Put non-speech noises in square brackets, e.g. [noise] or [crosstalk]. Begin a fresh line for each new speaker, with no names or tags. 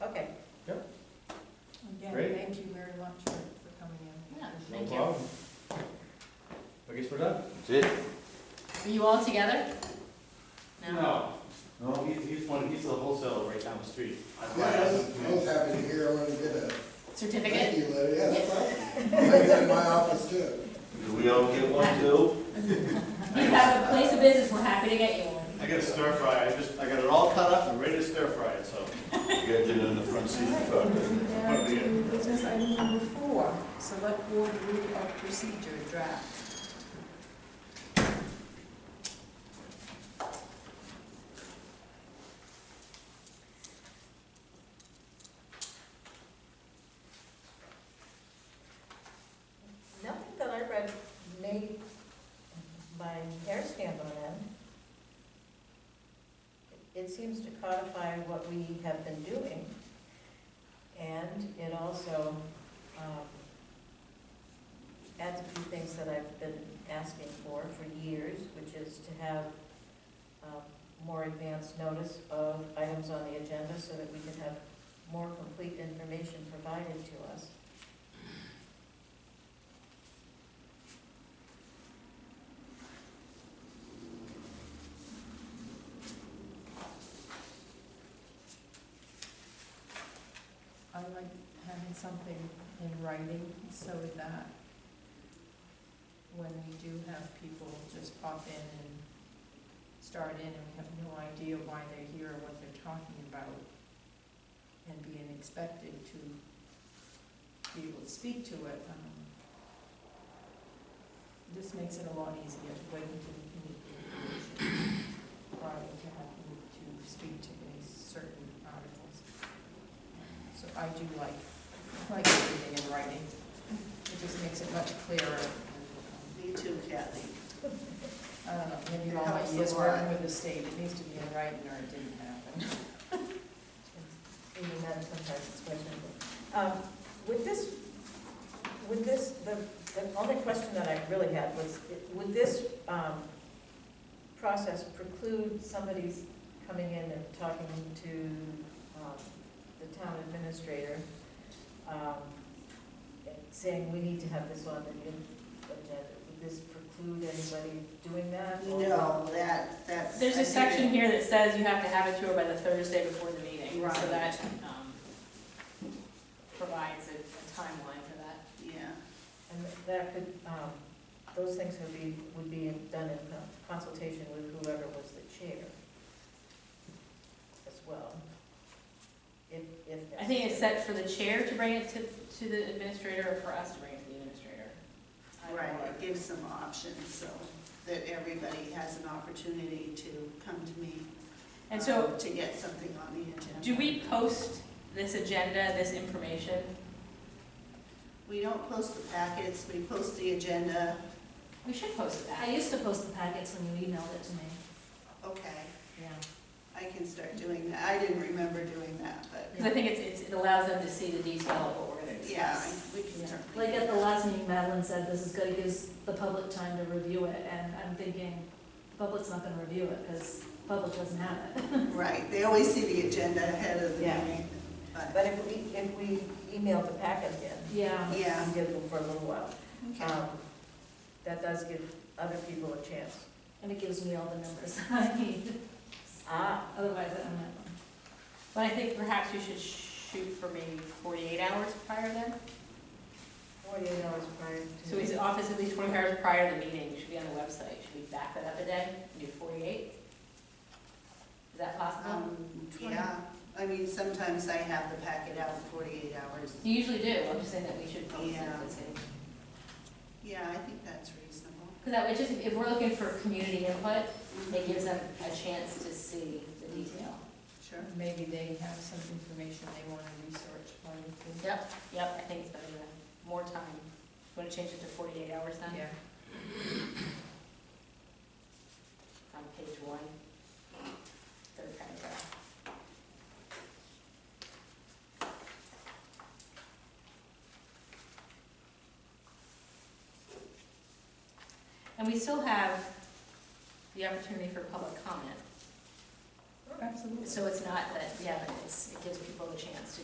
That's it?
Are you all together?
No,
No?
he's, he's one, he's the wholesaler right down the street. I'm
Yeah,
glad
I
I-
was, I was happy to hear, I wanted to get a thank
Certificate?
you letter, yeah, that's awesome. I like that in my office too.
Do we all get one too?
You have a place of business, we're happy to get you one.
I got a stir fry, I just, I got it all cut up and ready to stir fry it, so.
You got it in the front seat of the car, doesn't it?
Now to business item number four, select board rule of procedure draft.
Nothing that I read made my hair stand on end. It seems to codify what we have been doing, and it also um, adds a few things that I've been asking for for years, which is to have um, more advance notice of items on the agenda so that we can have more complete information provided to us.
I like having something in writing so that when we do have people just pop in and start in and we have no idea why they're here or what they're talking about and being expected to be able to speak to it, um, this makes it a lot easier to wait until you meet the information prior to having to speak to any certain articles. So I do like, like everything in writing. It just makes it much clearer.
Me too, Kathy.
I don't know, maybe
It
all my
helps a
years working
lot.
with the state, it needs to be in writing or it didn't happen.
Maybe not sometimes it's questionable. Um, Would this, would this, the, the only question that I really had was, would this um, process preclude somebody's coming in and talking to um, the town administrator, um, and saying, we need to have this on the agenda? Would this preclude anybody doing that? or-
No, that, that's.
There's
I
a
think
section
it-
here that says you have to have it to her by the Thursday before the meeting. So
Right.
that um, provides a a timeline for that.
Yeah,
And that could, um, those things would be, would be done in consultation with whoever was the chair as well, if, if.
I think it's
necessary.
set for the chair to bring it to, to the administrator or for us to bring it to the administrator. I don't
right,
know.
it gives some options, so that everybody has an opportunity to come to me.
And so
um, To get something on the agenda.
do we post this agenda, this information?
We don't post the packets, we post the agenda,
We should post that.
used to post the packets when you emailed it to me.
okay,
Yeah.
I can start doing that, I didn't remember doing that, but,
Because I think it's, it's, it allows them to see the detail of what we're gonna
yeah,
discuss.
I- we can certainly.
Like at the last meeting, Madeline said this is gonna give the public time to review it, and I'm thinking, the public's not gonna review it, because the public doesn't have it.
Right, they always see the agenda ahead of the
Yeah.
meeting, but,
But um, if we, if we emailed the packet in,
Yeah,
yeah,
and did them for a little while,
okay.
um, that does give other people a chance.
and it gives me all the numbers [laughs] I need,
Ah.
otherwise I don't have them.
But I think perhaps you should shoot for maybe forty-eight hours prior then.
Forty-eight hours prior to.
So his
Mhm.
office at least twenty-four hours prior to the meeting, should be on the website, should we back that up a day, and do forty-eight? Is that possible?
Um, yeah, I mean, sometimes I have the packet out in forty-eight hours.
You usually do, I'm just saying that we should post it,
Yeah.
let's see.
Yeah, I think that's reasonable.
Cause that, would just, if we're looking for community input, it gives them a chance to see the detail.
Sure.
Maybe they have some information they want to research while we
Yep, yep, I think it's better than, more time. Want to change it to forty-eight hours then,
Yeah.
on page one? Third paragraph. And we still have the opportunity for public comment,
Absolutely.
so it's not that, yeah, but it's, it gives people the chance to